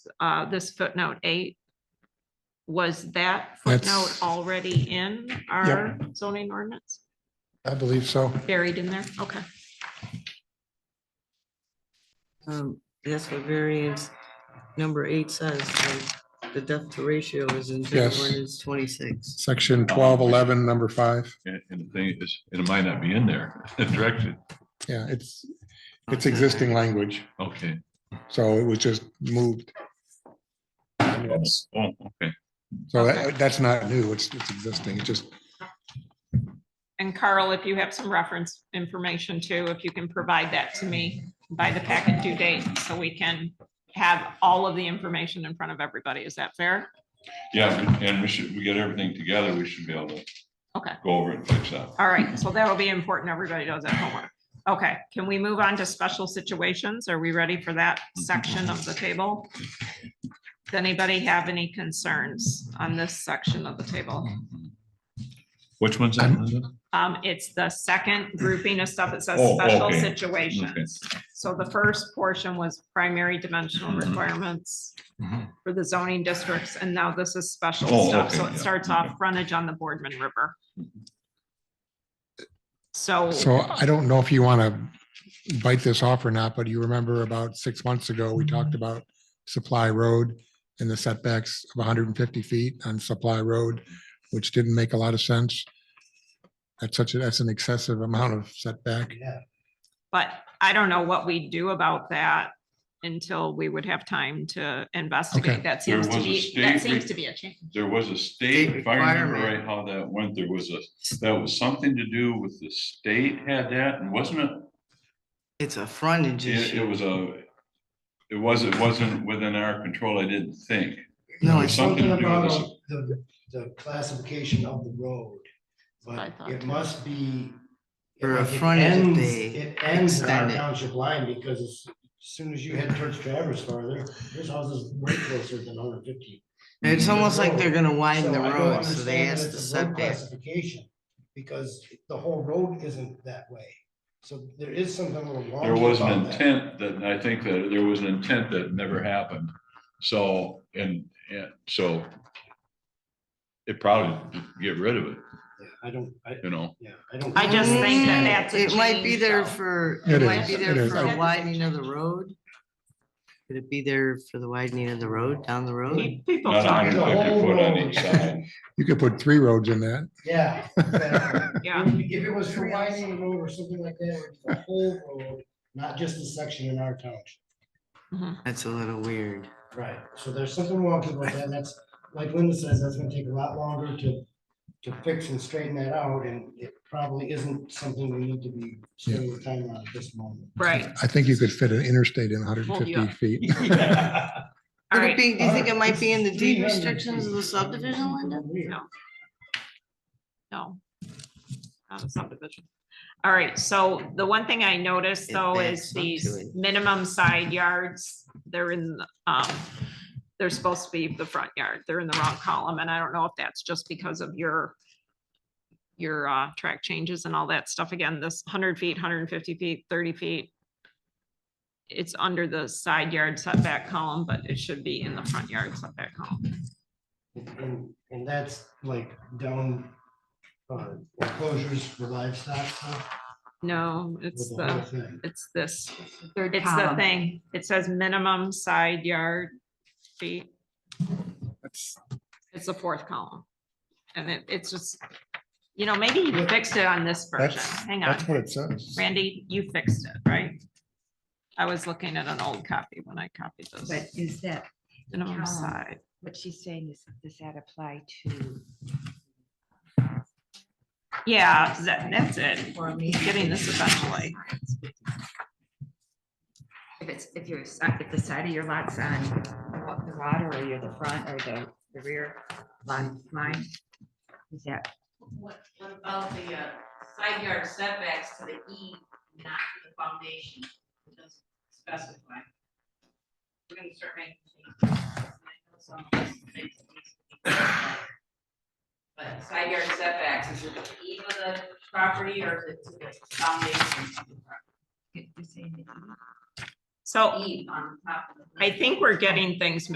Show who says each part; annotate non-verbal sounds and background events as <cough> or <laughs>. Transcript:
Speaker 1: uh, this footnote eight, was that
Speaker 2: That's-
Speaker 1: footnote already in our zoning ordinance,
Speaker 2: I believe so.
Speaker 1: buried in there? Okay.
Speaker 3: Um, that's what variance number eight says, the- the depth to ratio is in
Speaker 2: Yes.
Speaker 3: ordinance twenty-six.
Speaker 2: Section twelve eleven, number five.
Speaker 4: And, and the thing is, it might not be in there, <laughs> directed,
Speaker 2: Yeah, it's, it's existing language.
Speaker 4: okay.
Speaker 2: So it was just moved. Yes.
Speaker 4: Oh, okay.
Speaker 2: So that, that's not new. It's, it's existing. It's just,
Speaker 1: And Carl, if you have some reference information too, if you can provide that to me by the packet due date, so we can have all of the information in front of everybody. Is that fair?
Speaker 4: Yeah, and we should, we get everything together, we should be able to
Speaker 1: Okay.
Speaker 4: go over it and fix that.
Speaker 1: All right, so that'll be important. Everybody does that homework. Okay, can we move on to special situations? Are we ready for that section of the table? Does anybody have any concerns on this section of the table?
Speaker 4: Mm-hmm. Which one's that? Linda?
Speaker 1: Um, it's the second grouping of stuff that says
Speaker 4: Oh,
Speaker 1: special
Speaker 4: okay.
Speaker 1: situations. So the first portion was primary dimensional
Speaker 4: Mm-hmm.
Speaker 1: requirements
Speaker 4: Mhm.
Speaker 1: for the zoning districts, and now this is special
Speaker 4: Oh,
Speaker 1: stuff. So
Speaker 4: okay,
Speaker 1: it
Speaker 4: yeah,
Speaker 1: starts
Speaker 4: okay.
Speaker 1: off frontage on the Boardman River.
Speaker 4: Mm-hmm.
Speaker 1: So,
Speaker 2: so I don't know if you want to bite this off or not, but you remember about six months ago, we talked about Supply Road and the setbacks of hundred and fifty feet on Supply Road, which didn't make a lot of sense. That's such, a that's an excessive amount of setback.
Speaker 1: but I don't know what we do about that until we would have time to investigate. That
Speaker 4: There
Speaker 1: seems to
Speaker 4: was a
Speaker 1: be, that
Speaker 4: state re-
Speaker 1: seems to be a change.
Speaker 4: There was a state, if I remember
Speaker 3: Requirement.
Speaker 4: right how that went, there was a, that was something to do with the state had that, and wasn't it?
Speaker 3: It's a frontage
Speaker 4: It, it
Speaker 3: issue.
Speaker 4: was a, it was, it wasn't within our control, I didn't think.
Speaker 3: No,
Speaker 4: There's
Speaker 3: it's,
Speaker 4: something
Speaker 5: Something
Speaker 4: to do with this.
Speaker 5: about the, the classification of the road,
Speaker 1: I
Speaker 5: but
Speaker 1: thought
Speaker 5: it
Speaker 1: too.
Speaker 5: must be.
Speaker 3: For a
Speaker 5: like, it
Speaker 3: frontage,
Speaker 5: ends-
Speaker 3: they
Speaker 5: It ends our
Speaker 3: extend it.
Speaker 5: township line because as soon as you head towards Travers farther, there's houses way closer than hundred fifty.
Speaker 3: it's almost like they're gonna widen the
Speaker 5: So I don't
Speaker 3: road, so they
Speaker 5: understand
Speaker 3: asked
Speaker 5: that it's
Speaker 3: the
Speaker 5: a road
Speaker 3: setback.
Speaker 5: Classification, because the whole road isn't that way. So there is something a little wrong.
Speaker 4: There was an
Speaker 5: about that.
Speaker 4: intent that, I think that there was an intent that never happened. So, and, and so it probably get rid of it,
Speaker 5: Yeah, I don't, I,
Speaker 4: you know?
Speaker 5: yeah, I don't.
Speaker 1: I just think that that's a
Speaker 3: Mm, It might be
Speaker 1: change,
Speaker 3: there
Speaker 1: though.
Speaker 3: for,
Speaker 2: It
Speaker 3: it might
Speaker 2: is,
Speaker 3: be
Speaker 2: it
Speaker 3: there
Speaker 2: is.
Speaker 3: for a widening of the road. Could it be there for the widening of the road, down the road?
Speaker 1: Pe- People
Speaker 4: Not
Speaker 1: talk,
Speaker 5: hundred-
Speaker 4: 150 foot on each side.
Speaker 2: You could put three roads in that.
Speaker 5: Yeah. exactly.
Speaker 1: yeah.
Speaker 5: If if it was for widening the road or something like that, or the whole road, not just the section in our township.
Speaker 1: mhm.
Speaker 3: That's a little weird.
Speaker 5: Right. So there's something wonky about that, and that's, like Linda says, that's gonna take a lot longer to, to fix and straighten that out, and it probably isn't something we need to be spending the time on at this moment.
Speaker 1: Right,
Speaker 2: I think you could fit an interstate in hundred and
Speaker 1: Hold you up.
Speaker 2: fifty feet.
Speaker 1: all
Speaker 3: Could it
Speaker 1: right.
Speaker 3: be, do you think it might be in the deed
Speaker 5: 300
Speaker 3: restrictions of the subdivision, Linda?
Speaker 5: Weird.
Speaker 1: No. Not a subdivision. All right, so the one thing I noticed
Speaker 3: It
Speaker 1: though is
Speaker 3: backs up to
Speaker 1: these
Speaker 3: it.
Speaker 1: minimum side yards, they're in, the, um, they're supposed to be the front yard, they're in the wrong column, and I don't know if that's just because of your your, uh, track changes and all that stuff. Again, this hundred feet, hundred and fifty feet, thirty feet. It's under the side yard setback column, but it should be in the front yard setback column.
Speaker 5: And, and that's like down, uh, enclosures for livestock stuff.
Speaker 1: No, it's
Speaker 5: with
Speaker 1: the.
Speaker 5: whole thing.
Speaker 1: It's this,
Speaker 6: Third
Speaker 1: it's the
Speaker 6: column.
Speaker 1: thing, it says minimum side yard feet,
Speaker 2: That's-
Speaker 1: it's the fourth column. And it, it's just, you know, maybe you fixed it on this version,
Speaker 2: That's,
Speaker 1: hang on,
Speaker 2: that's what it says.
Speaker 1: Randy, you fixed it, right? I was looking at an old copy when I copied
Speaker 6: But
Speaker 1: this,
Speaker 6: is that,
Speaker 1: minimum
Speaker 6: column.
Speaker 1: side,
Speaker 6: what she's saying is, does that apply to?
Speaker 1: yeah, that, that's it,
Speaker 6: For me?
Speaker 1: getting this eventually,
Speaker 6: If it's, if you're, si- if the side of your lot's on the water or you're the front or the, the rear lot line, is that?
Speaker 7: What, what about the uh, side yard setbacks to the E, not to the foundation? It doesn't specify. We're gonna start making changes. But side yard setbacks, is it to the E of the property or is it to the foundation? of the property?
Speaker 6: you're saying that-
Speaker 1: so
Speaker 7: E on top of the.
Speaker 1: I think we're getting things